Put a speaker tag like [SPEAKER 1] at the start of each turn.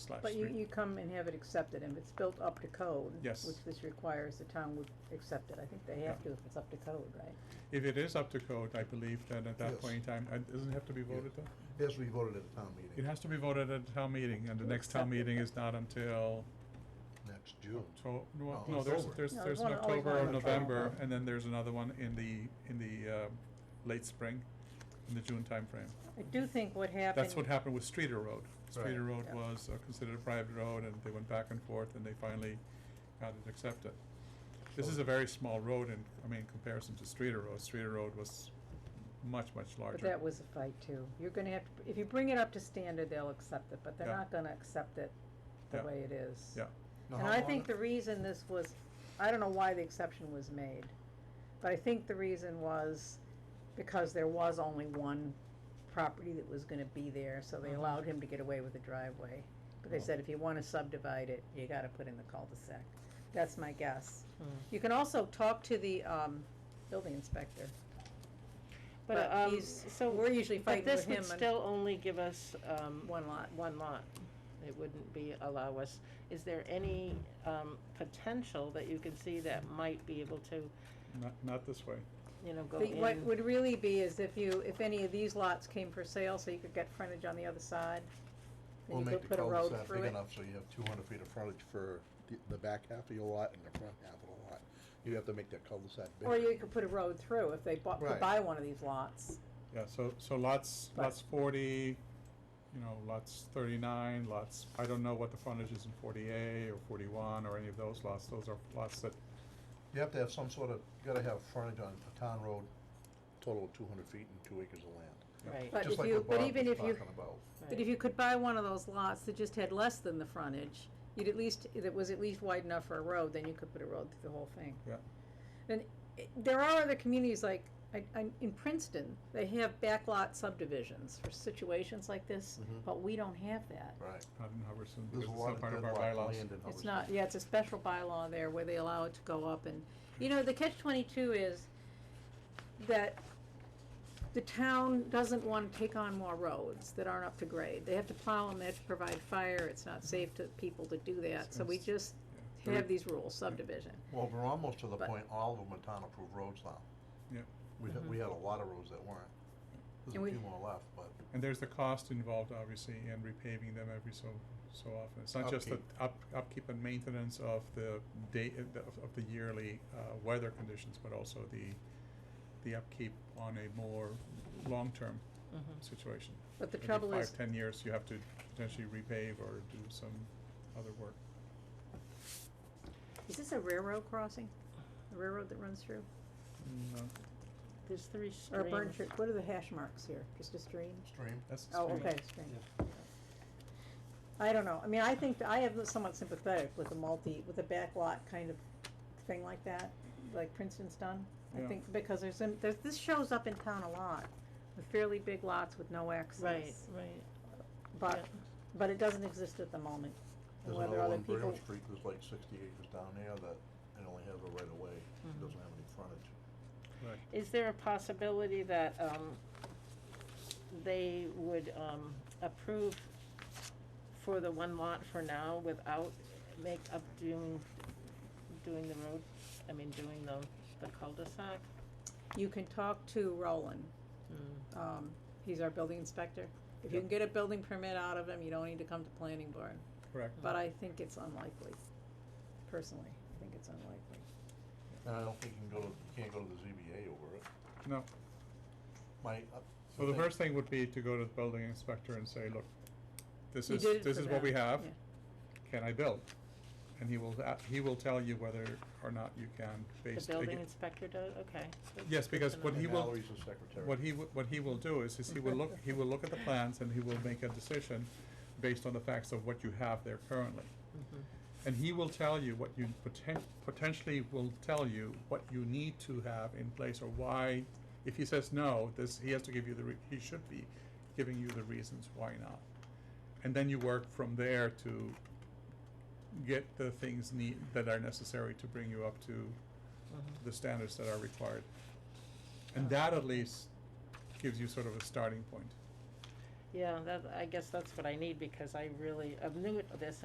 [SPEAKER 1] slash
[SPEAKER 2] But you,
[SPEAKER 1] three.
[SPEAKER 2] you come and have it accepted, and if it's built up to code.
[SPEAKER 1] Yes.
[SPEAKER 2] Which this requires, the town would accept it, I think they have to if it's up to code, right?
[SPEAKER 1] If it is up to code, I believe then at that
[SPEAKER 3] Yes.
[SPEAKER 1] point in time, uh, doesn't it have to be
[SPEAKER 3] Yeah.
[SPEAKER 1] voted though?
[SPEAKER 3] It has to be voted at a town
[SPEAKER 1] It
[SPEAKER 3] meeting
[SPEAKER 1] has to be voted at a town meeting, and the next town
[SPEAKER 2] Accept it.
[SPEAKER 1] meeting is not until
[SPEAKER 3] next June.
[SPEAKER 1] Octo- no,
[SPEAKER 3] No,
[SPEAKER 1] no, there's,
[SPEAKER 3] October.
[SPEAKER 1] there's,
[SPEAKER 2] No,
[SPEAKER 1] there's
[SPEAKER 2] there's
[SPEAKER 1] an
[SPEAKER 2] one- always
[SPEAKER 1] October
[SPEAKER 2] one
[SPEAKER 1] or
[SPEAKER 2] in
[SPEAKER 1] November,
[SPEAKER 2] October.
[SPEAKER 1] and then there's another one in the, in the, uh, late spring, in the June timeframe.
[SPEAKER 2] I do think what happened.
[SPEAKER 1] That's what happened with Streeter Road. Streeter Road
[SPEAKER 2] Yeah.
[SPEAKER 1] was uh, considered a private road, and they went back and forth, and they finally got it accepted. This is a very small road in, I mean, in comparison to Streeter Road. Streeter Road was much, much larger.
[SPEAKER 2] But that was a fight too. You're gonna have to, if you bring it up to standard, they'll accept it, but they're
[SPEAKER 1] Yeah.
[SPEAKER 2] not gonna accept it the
[SPEAKER 1] Yeah.
[SPEAKER 2] way it is.
[SPEAKER 1] Yeah.
[SPEAKER 3] Now,
[SPEAKER 2] And
[SPEAKER 3] how
[SPEAKER 2] I
[SPEAKER 3] long-
[SPEAKER 2] think the reason this was, I don't know why the exception was made, but I think the reason was because there was only one property that was gonna be there, so they
[SPEAKER 3] Uh-huh.
[SPEAKER 1] Mhm.
[SPEAKER 2] allowed him to get away with the driveway. But they
[SPEAKER 1] Oh.
[SPEAKER 2] said if you wanna subdivide it, you gotta put in the cul-de-sac. That's my guess. You can also talk to the, um, building inspector.
[SPEAKER 4] But,
[SPEAKER 2] But
[SPEAKER 4] um,
[SPEAKER 2] he's-
[SPEAKER 4] so,
[SPEAKER 2] We're usually
[SPEAKER 4] but
[SPEAKER 2] fighting with
[SPEAKER 4] this
[SPEAKER 2] him
[SPEAKER 4] would
[SPEAKER 2] on.
[SPEAKER 4] still only give us, um,
[SPEAKER 2] One lot.
[SPEAKER 4] one lot. It wouldn't be, allow us, is there any, um, potential that you can see that might be able to,
[SPEAKER 1] Not, not this way.
[SPEAKER 4] you know, go
[SPEAKER 2] The- What
[SPEAKER 4] in?
[SPEAKER 2] would really be is if you, if any of these lots came for sale, so you could get frontage on the other side, then
[SPEAKER 3] We'll
[SPEAKER 2] you
[SPEAKER 3] make
[SPEAKER 2] could
[SPEAKER 3] the
[SPEAKER 2] put a road
[SPEAKER 3] cul-de-sac
[SPEAKER 2] through
[SPEAKER 3] big
[SPEAKER 2] it.
[SPEAKER 3] enough so you have two hundred feet of frontage for the, the back half of your lot and the front half of the lot. You have to make that cul-de-sac bigger.
[SPEAKER 2] Or you could put a road through if they bought, could
[SPEAKER 3] Right.
[SPEAKER 2] buy one of these lots.
[SPEAKER 1] Yeah, so, so lots,
[SPEAKER 2] But-
[SPEAKER 1] lots forty, you know, lots thirty-nine, lots, I don't know what the frontage is in forty A or forty-one or any of those lots. Those are lots that,
[SPEAKER 3] You have to have some sort of, you gotta have frontage on a town road, total of two hundred feet and two acres of land.
[SPEAKER 4] Right,
[SPEAKER 2] But
[SPEAKER 3] Just
[SPEAKER 2] if
[SPEAKER 3] like
[SPEAKER 2] you-
[SPEAKER 3] what
[SPEAKER 2] but
[SPEAKER 3] Bob
[SPEAKER 2] even
[SPEAKER 3] was
[SPEAKER 2] if you-
[SPEAKER 3] talking about.
[SPEAKER 2] But
[SPEAKER 4] right.
[SPEAKER 2] if you could buy one of those lots that just had less than the frontage, you'd at least, that was at least wide enough for a road, then you could put a road through the whole thing.
[SPEAKER 1] Yeah.
[SPEAKER 2] And i- there are other communities like, I, I, in Princeton, they have backlot subdivisions for situations like this,
[SPEAKER 3] Mhm.
[SPEAKER 2] but we don't have that.
[SPEAKER 3] Right.
[SPEAKER 1] not in Hubbardston,
[SPEAKER 3] There's
[SPEAKER 1] because
[SPEAKER 3] a
[SPEAKER 1] it's
[SPEAKER 3] lot
[SPEAKER 1] not
[SPEAKER 3] of
[SPEAKER 1] part of our
[SPEAKER 3] deadlocked
[SPEAKER 1] bylaws.
[SPEAKER 3] land in
[SPEAKER 2] It's
[SPEAKER 3] Hubbardston.
[SPEAKER 2] not, yeah, it's a special bylaw there where they allow it to go up and, you know, the catch twenty-two is that the town doesn't wanna take on more roads that aren't up to grade. They have to plow them, they have to provide fire, it's not safe to people to do that, so we just
[SPEAKER 1] Yeah.
[SPEAKER 2] have these rules, subdivision.
[SPEAKER 3] Well, we're almost to the
[SPEAKER 2] But- Mm-hmm.
[SPEAKER 3] point, all of them are town-approved roads now.
[SPEAKER 1] Yeah.
[SPEAKER 3] We had, we had a lot of roads that weren't.
[SPEAKER 2] And
[SPEAKER 3] There's
[SPEAKER 2] we-
[SPEAKER 3] a few more left, but.
[SPEAKER 1] And there's the cost involved, obviously, in repaving them every so, so often. It's not just the up, upkeep and maintenance of the day, uh, the- of of the yearly, uh, weather conditions, but also the, the upkeep on a more long-term
[SPEAKER 4] Mhm.
[SPEAKER 1] situation.
[SPEAKER 2] Hmm. But the
[SPEAKER 1] Every
[SPEAKER 2] trouble is,
[SPEAKER 1] Five, ten years, you have to potentially repave or do some other work.
[SPEAKER 2] is this a railroad crossing? A railroad that runs through?
[SPEAKER 1] No,
[SPEAKER 4] There's three
[SPEAKER 2] Or a burn
[SPEAKER 4] streams.
[SPEAKER 2] church, what are the hash marks here? Just a stream?
[SPEAKER 3] Stream.
[SPEAKER 1] that's the
[SPEAKER 2] Oh,
[SPEAKER 1] stream.
[SPEAKER 2] okay, strange. I don't know, I mean, I think, th- I am somewhat sympathetic with the multi, with the backlot kind of thing like that, like Princeton's done. I
[SPEAKER 1] Yeah.
[SPEAKER 2] think, because there's, some- there's, this shows up in town a lot, with fairly big lots with no access.
[SPEAKER 4] Right, right.
[SPEAKER 2] But, but it doesn't exist at the moment. And
[SPEAKER 3] There's
[SPEAKER 2] whether
[SPEAKER 3] another
[SPEAKER 2] other
[SPEAKER 3] one, Braille
[SPEAKER 2] people,
[SPEAKER 3] Street, there's like sixty acres down there that it only has a right of way, it
[SPEAKER 4] Mhm.
[SPEAKER 2] Mm-hmm.
[SPEAKER 3] doesn't have any frontage.
[SPEAKER 1] Right.
[SPEAKER 4] Is there a possibility that, um, they would, um, approve for the one lot for now without make up doing, doing the road, I mean, doing the, the cul-de-sac? Hmm.
[SPEAKER 2] you can talk to Roland, um, he's our building inspector. If you
[SPEAKER 1] Yep.
[SPEAKER 2] can get a building permit out of him, you don't need to come to planning board,
[SPEAKER 1] Correct.
[SPEAKER 2] but I think it's unlikely, personally, I think it's unlikely.
[SPEAKER 3] And I don't think you can go to, you can't go to the ZBA over it.
[SPEAKER 2] Hmm.
[SPEAKER 1] No.
[SPEAKER 3] My, uh,
[SPEAKER 1] So the
[SPEAKER 3] thing-
[SPEAKER 1] first thing would be to go to the building inspector and say, look, this
[SPEAKER 2] You
[SPEAKER 1] is,
[SPEAKER 2] did it
[SPEAKER 1] this
[SPEAKER 2] for
[SPEAKER 1] is what
[SPEAKER 2] them,
[SPEAKER 1] we have,
[SPEAKER 2] yeah.
[SPEAKER 1] can I build? And he will, a- he will tell you whether or not you can
[SPEAKER 4] The
[SPEAKER 1] based.
[SPEAKER 4] building
[SPEAKER 1] aga-
[SPEAKER 4] inspector does, okay. that's
[SPEAKER 1] Yes,
[SPEAKER 4] good
[SPEAKER 1] because
[SPEAKER 4] to
[SPEAKER 1] what
[SPEAKER 4] know.
[SPEAKER 1] he
[SPEAKER 3] And
[SPEAKER 1] will-
[SPEAKER 3] Mallory's the secretary.
[SPEAKER 1] What he, wo- what he will do is, is he will look, he will look at the plans and he will make a decision based on the facts of what you have there currently.
[SPEAKER 4] Mhm.
[SPEAKER 1] And he will tell you what you poten- potentially will tell you what you need to have in place or why. If he says no, this, he has to give you the, re- he should be giving you the reasons why not. And then you work from there to get the things need, that are necessary to bring you up to
[SPEAKER 4] Mhm.
[SPEAKER 1] the standards that are required. And that at least gives you sort of a starting point.
[SPEAKER 4] Yeah, that, I guess that's what I need because I really, I'm new at this